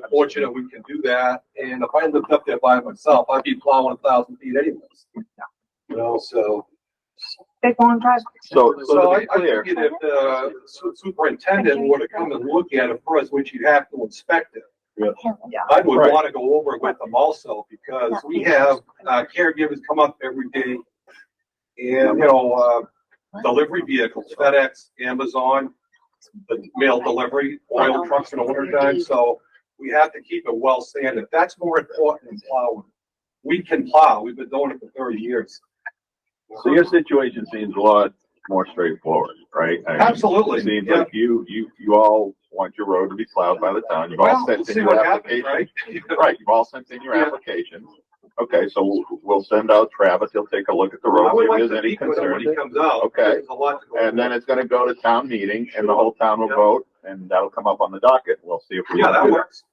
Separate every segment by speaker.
Speaker 1: But fortunate we can do that, and if I lived up there by myself, I'd be plowing a thousand feet anyways. You know, so.
Speaker 2: big long drive.
Speaker 3: So,
Speaker 1: So
Speaker 3: so to
Speaker 1: I,
Speaker 3: be
Speaker 1: I
Speaker 3: clear,
Speaker 1: think if the su- superintendent were to come and look at it first, which you'd have to inspect it.
Speaker 2: Yeah.
Speaker 1: I would
Speaker 3: Right.
Speaker 1: want to go over it with them also because we have uh, caregivers come up every day. And, you know, uh, delivery vehicles, FedEx, Amazon, the mail delivery, oil trucks in the wintertime. So we have to keep it well sanded. That's more important than plowing. We can plow. We've been doing it for thirty years.
Speaker 3: so your situation seems a lot more straightforward, right? I mean,
Speaker 1: Absolutely,
Speaker 3: It seems
Speaker 1: yeah.
Speaker 3: like you, you, you all want your road to be plowed by the town. You've all
Speaker 1: Well,
Speaker 3: sent in
Speaker 1: see
Speaker 3: your
Speaker 1: what happens,
Speaker 3: application.
Speaker 1: right?
Speaker 3: Right, you've all sent in your
Speaker 1: Yeah.
Speaker 3: application. Okay, so we'll- we'll send out Travis. He'll take a look at the
Speaker 1: I
Speaker 3: road.
Speaker 1: would
Speaker 3: If
Speaker 1: like
Speaker 3: there's
Speaker 1: to
Speaker 3: any
Speaker 1: speak with him when
Speaker 3: concern,
Speaker 1: he comes out.
Speaker 3: Okay.
Speaker 1: There's a lot to go
Speaker 3: And then
Speaker 1: over.
Speaker 3: it's gonna go to town meeting and the whole town will
Speaker 1: Yeah.
Speaker 3: vote and that'll come up on the docket. We'll see if we.
Speaker 1: Yeah,
Speaker 3: can
Speaker 1: that
Speaker 3: do
Speaker 1: works.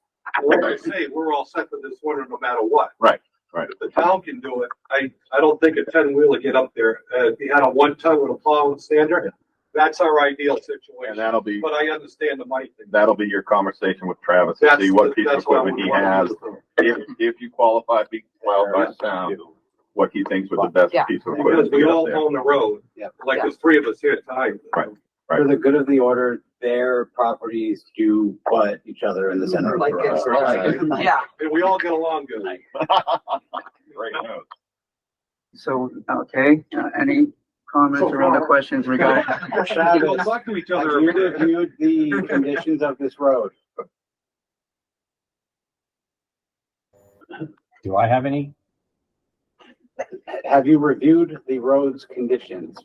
Speaker 1: Like I
Speaker 3: Right.
Speaker 1: say, we're all set for this winter no matter what.
Speaker 3: Right, right.
Speaker 1: If the town can do it, I, I don't think a ten wheeler get up there, uh, if you had a one ton with a plow and sander, that's our ideal
Speaker 3: And
Speaker 1: situation.
Speaker 3: that'll be,
Speaker 1: But I understand the money thing.
Speaker 3: that'll be your conversation with Travis to
Speaker 1: That's
Speaker 3: see what piece of
Speaker 1: that's why
Speaker 3: equipment
Speaker 1: we
Speaker 3: he
Speaker 1: wanna
Speaker 3: has.
Speaker 1: do this.
Speaker 3: If, if you qualify, be qualified by sound, what he thinks was the best
Speaker 2: Yeah.
Speaker 3: piece of
Speaker 1: Because
Speaker 3: um, equipment to
Speaker 1: we
Speaker 3: get up
Speaker 1: all
Speaker 3: there.
Speaker 1: own the road,
Speaker 4: Yeah.
Speaker 1: like there's three of us here tonight.
Speaker 3: Right.
Speaker 4: For the good of the order, their properties do butt each other in the center of the
Speaker 5: Like
Speaker 4: road.
Speaker 5: it's-
Speaker 4: Right.
Speaker 2: Yeah.
Speaker 1: And we all get along good.
Speaker 3: Great note.
Speaker 5: So, okay, uh, any comments or
Speaker 6: uh,
Speaker 5: other questions regarding?
Speaker 1: We all
Speaker 4: Travis,
Speaker 1: talk to each
Speaker 4: have
Speaker 1: other.
Speaker 4: you reviewed the conditions of this road?
Speaker 7: Do I have any?
Speaker 4: Have you reviewed the road's conditions?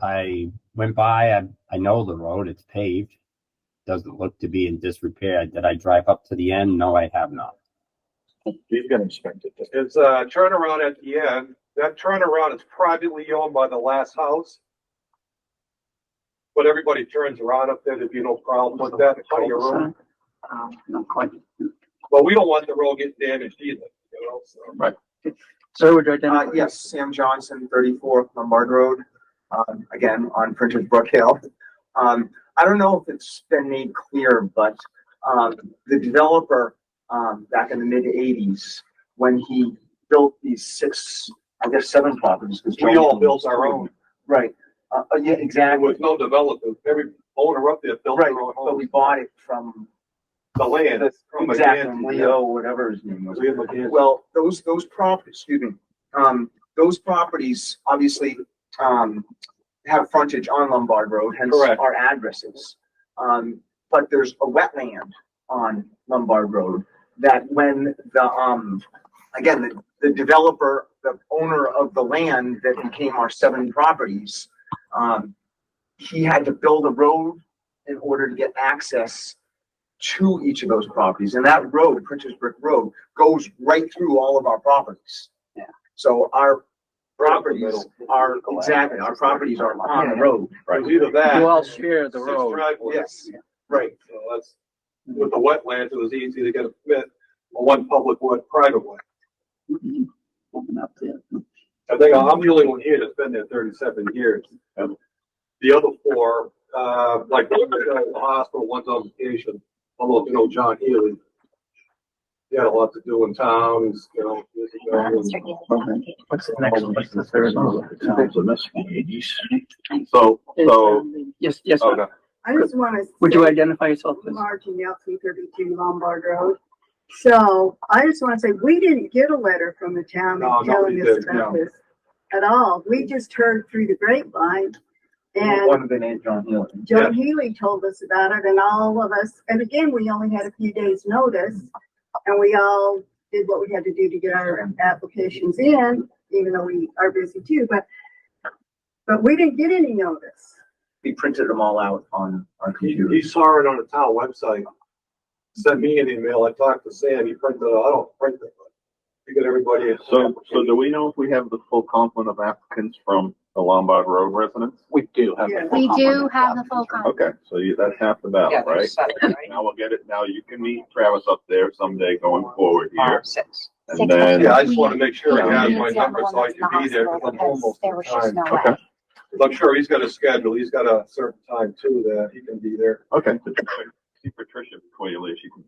Speaker 7: I went by, I, I know the road, it's paved. Doesn't look to be in disrepair. Did I drive up to the end? No, I have not.
Speaker 3: He's gonna inspect it.
Speaker 1: It's a uh, turnaround at the end. That turnaround is privately owned by the last house. But everybody turns around up there, there'd be no problem with that, part of your road.
Speaker 5: Um, Not quite.
Speaker 1: But we don't want the road getting damaged either, you know, so.
Speaker 5: So would you identify?
Speaker 6: Uh, yes, Sam Johnson, thirty-four Lombard Road, um, again, on Printers Brook Hill. Um, I don't know if it's been made clear, but, um, the developer, um, back in the mid-eighties, when he built these six, I guess, seven properties. 'cause
Speaker 1: We all built our own.
Speaker 6: Right, uh, uh, yeah,
Speaker 1: And
Speaker 6: exactly,
Speaker 1: with no development, every owner up there built
Speaker 6: right,
Speaker 1: their own
Speaker 6: but we
Speaker 1: home,
Speaker 6: bought it from,
Speaker 1: the land. from a
Speaker 6: exactly,
Speaker 1: man-
Speaker 6: Leo, whatever his name was.
Speaker 1: We have a man-
Speaker 6: Well, those, those properties, excuse me, um, those properties obviously, um, have frontage on Lombard Road, hence
Speaker 1: Correct.
Speaker 6: our addresses. Um, but there's a wetland on Lombard Road that when the, um, again, the, the developer, the owner of the land that became our seven properties, um, he had to build a road in order to get access to each of those properties. And that road, Pritchard's Brook Road, goes right through all of our properties.
Speaker 5: Yeah.
Speaker 6: So our properties
Speaker 1: Middle.
Speaker 6: are, exactly, our properties are on the road.
Speaker 1: It was either that.
Speaker 5: You all share the
Speaker 1: six
Speaker 5: road.
Speaker 1: driveways.
Speaker 6: Yes, right.
Speaker 1: So that's, with the wetlands, it was easy to get a permit, for one public, one private way.
Speaker 5: Mm-hmm. Open up there.
Speaker 1: I think I'm the only one here that's been there thirty-seven years.
Speaker 3: Yep.
Speaker 1: The other four, uh, like, one's at the hospital, one's on vacation, although, you know, John Healy. He had a lot to do in town, he's, you know. years ago, and-
Speaker 5: What's the next, what's the third one?
Speaker 3: So, so,
Speaker 5: Yes, yes,
Speaker 3: oh,
Speaker 5: ma'am.
Speaker 3: no.
Speaker 8: I just want to.
Speaker 5: would you identify yourself? please?
Speaker 8: Margie Nelson, thirty-two Lombard Road. So I just want to say, we didn't get a letter from the town
Speaker 1: No, nobody
Speaker 8: telling us
Speaker 1: did,
Speaker 8: about this at all. We just heard through the grapevine. And
Speaker 6: One of the names John Healy.
Speaker 8: Joe Healy told us about it and all of us, and again, we only had a few days' notice. And we all did what we had to do to get our applications in, even though we are busy too, but, but we didn't get any notice.
Speaker 6: We printed them all out on our
Speaker 1: He,
Speaker 6: computer.
Speaker 1: he saw it on the town website, sent me an email, I talked to Sam, he printed, it out. I don't print it, but he got everybody. a-
Speaker 3: so, so do we know if we have the full complement of applicants from the Lombard Road residents?
Speaker 4: We do have.
Speaker 8: Yeah.
Speaker 9: We do have the full complement.
Speaker 3: Okay, so you, that's half the battle,
Speaker 10: Yeah,
Speaker 3: right?
Speaker 10: there's seven, right?
Speaker 3: Now we'll get it, now you can meet Travis up there someday going forward here.
Speaker 10: Or Six.
Speaker 3: And then,
Speaker 1: Yeah, I just wanna make sure I have
Speaker 9: Yeah.
Speaker 1: my number so I can be there, cause I'm home most
Speaker 9: There
Speaker 1: of the
Speaker 9: was just
Speaker 1: time.
Speaker 9: no
Speaker 3: okay,
Speaker 9: way.
Speaker 1: But I'm sure he's got a schedule, he's got a certain time too that he can be there.
Speaker 3: okay. See Patricia before you leave, she can